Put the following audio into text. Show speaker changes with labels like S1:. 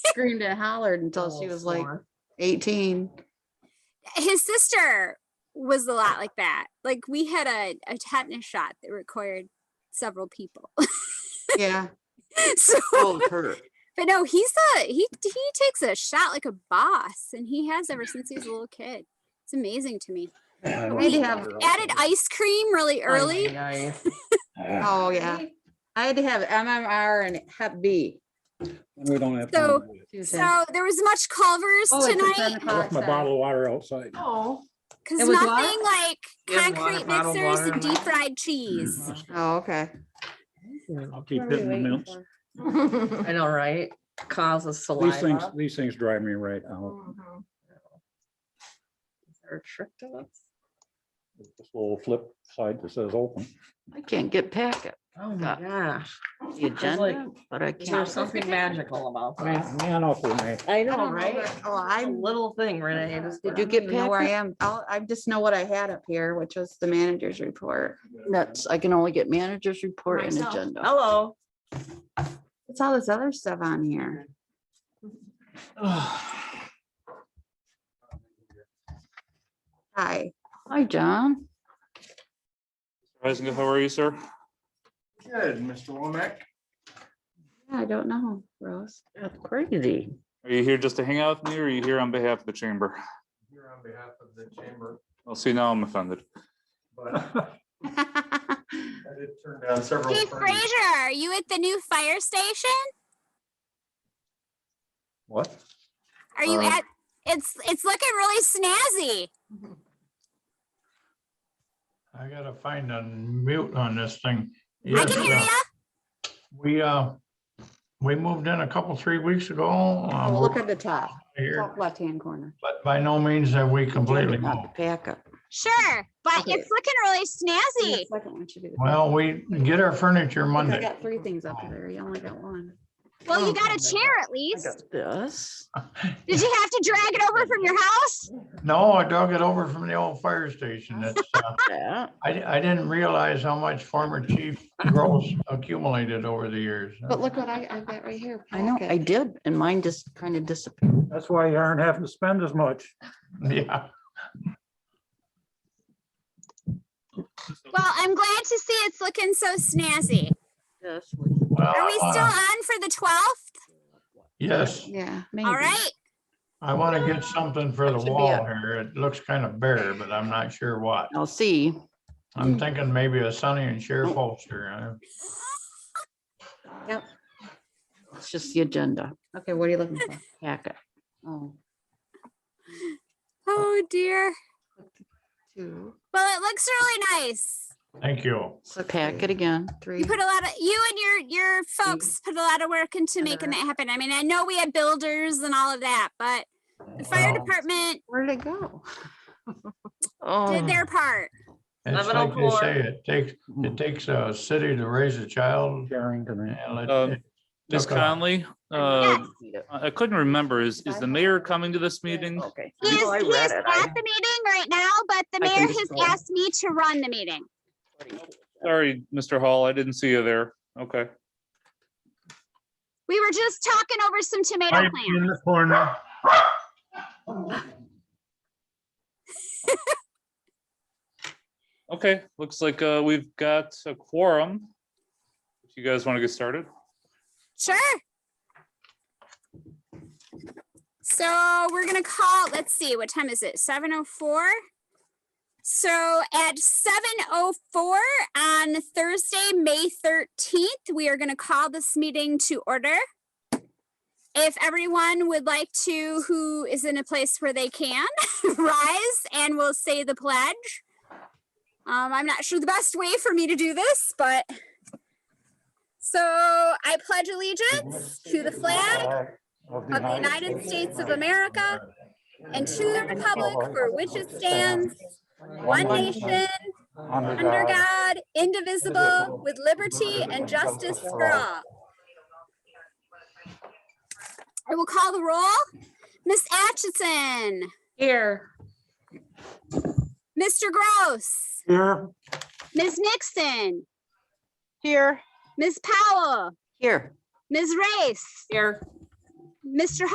S1: screamed and hollered until
S2: Oh,
S1: she was like eighteen.
S3: his sister was a lot like that. Like we had a, a tetanus shot that required several people.
S1: Yeah.
S3: so,
S2: Oh, her.
S3: but no, he's a he he takes a shot like a boss, and he has ever since he was a little kid. It's amazing to me.
S1: We have
S4: Oh,
S3: Added ice cream
S2: Oh,
S3: really early.
S4: Ah,
S1: Oh, yeah. I had to have MMR and Hep B.
S4: and We don't have.
S3: So-
S4: time to do it.
S1: She said.
S3: So there was much Culver's
S1: Oh, it's at 10
S3: tonight
S1: o'clock,
S5: Left my
S1: sorry.
S5: bottle of water outside.
S2: Oh.
S3: because
S1: It was
S3: nothing
S1: what?
S3: like
S2: Yeah, water,
S3: concrete
S2: bottled
S3: mixers
S2: water
S3: and
S2: and
S3: deep fried
S2: Mm.
S3: cheese.
S1: Oh, okay.
S5: I'll keep hitting the mints.
S2: I know, right? Causes
S4: These things,
S2: saliva.
S4: these things drive me right out.
S2: Mhm. Is there a trick to this?
S4: This little flip side that says open.
S6: I can't get packet,
S2: Oh my gosh.
S6: the agenda, but I
S2: Is there
S6: can't.
S2: something magical about that?
S4: Man up with me.
S2: I know,
S1: don't know
S2: right?
S1: that- oh,
S2: A
S1: I'm-
S2: little thing, Renee. just-
S6: Did you
S1: I don't
S6: get
S1: even know where I
S6: packet?
S1: am. I'll, I just know what I had up here, which was the manager's report.
S6: That's, I can only get managers report and
S2: Myself. Oh.
S6: agenda.
S2: Hello.
S1: What's all this other stuff on here? Hi.
S6: Hi, John.
S7: Reisner, how are you, sir?
S8: Good, Mr. Womack.
S1: Yeah, I don't know, Rose.
S6: That's Crazy.
S7: Are you here just to hang out with me or are you here on behalf of the chamber?
S8: Here on behalf of the chamber,
S7: I'll see now I'm offended.
S8: but I did turn down several.
S3: Keith
S8: friends.
S3: Frazier, are you at the new fire station?
S8: What?
S3: Are you
S7: Uh,
S3: at? It's it's looking really snazzy.
S9: I gotta find a mute on this thing.
S3: I
S9: Yes,
S3: can hear
S9: uh,
S3: you.
S9: We, uh, we moved in a couple, three weeks ago. um,
S1: Oh, Look at the top,
S9: here,
S1: top left-hand corner.
S9: But by no means have we completely moved.
S6: Not the Packet.
S3: Sure, but
S1: Okay.
S3: it's looking really
S1: Yeah,
S3: snazzy.
S1: Second one should be. the-
S9: Well, we get our furniture
S1: Look, I
S9: Monday.
S1: got three things up there. You only got one.
S3: Well, you
S6: Oh,
S3: got a chair at
S6: I
S3: least.
S6: got This.
S3: Did you have to drag it over from your house?
S9: No, I dug it over from the old fire station. It's, uh,
S6: that.
S9: I, I didn't realize how much former chief Gross accumulated over the years.
S1: But look what I, I got right here.
S6: I know, I
S1: packet.
S6: did, and mine just kind of disappeared.
S4: That's why you aren't having to spend as much.
S9: Yeah,
S3: Well, I'm glad to see it's looking so snazzy.
S6: Yes.
S9: well,
S3: Are we still
S9: uh,
S3: on for the twelfth?
S9: Yes,
S1: Yeah.
S3: All
S6: maybe.
S3: right.
S9: I want to get something for the
S6: Should be
S9: wall here. It looks kind of bare, but I'm not sure what.
S6: I'll see.
S3: Mm.
S9: I'm thinking maybe a Sonny and Cher
S3: Oh.
S9: poster. uh,
S6: It's just the agenda
S1: Okay, what are you looking for?
S6: packet.
S1: Oh,
S3: Oh dear.
S1: two,
S3: Well, it looks really nice.
S9: Thank you.
S1: six,
S6: Packet again.
S1: three.
S3: You put a lot of you and your your folks put a lot of work into making that happen. I mean, I know we had builders and all of that, but the fire
S9: Well,
S3: department
S1: Where did it go?
S6: Oh,
S3: did their part.
S9: It's
S2: Eleven
S9: like they
S2: o'clock.
S9: say, it takes,
S3: Mm.
S9: it takes a city to raise a child.
S4: Caring to me.
S9: and it-
S7: Um, Ms.
S9: Okay.
S7: Conley, uh,
S3: Yes.
S7: I couldn't remember. Is, is the mayor coming to this meeting?
S6: okay.
S3: He is,
S6: No, I
S3: he
S6: read
S3: is
S6: it. I-
S3: at the meeting right now, but the
S6: I can
S3: mayor
S6: just
S3: has
S6: go.
S3: asked me to run the meeting.
S7: Sorry, Mr. Hall, I didn't see you there. Okay.
S3: We were just talking over some tomato plants.
S9: the corner.
S7: Okay, looks like uh, we've got a quorum. If you guys want to get started.
S3: Sure. So we're gonna call, let's see, what time is it? Seven oh four? So at seven oh four on Thursday, May thirteenth, we are gonna call this meeting to order. If everyone would like to, who is in a place where they can, rise and we'll say the pledge. Um, I'm not sure the best way for me to do this, but so I pledge allegiance to the flag
S4: Of
S3: of the United States of America and to the republic for which it stands, one nation, under God, indivisible, with liberty and justice for all. I will call the roll. Miss Atchison,
S1: Here.
S3: Mr. Gross,
S4: Here.
S3: Ms. Nixon,
S2: Here.
S3: Ms. Powell,
S6: Here.
S3: Ms. Race,
S2: Here.
S3: Mr.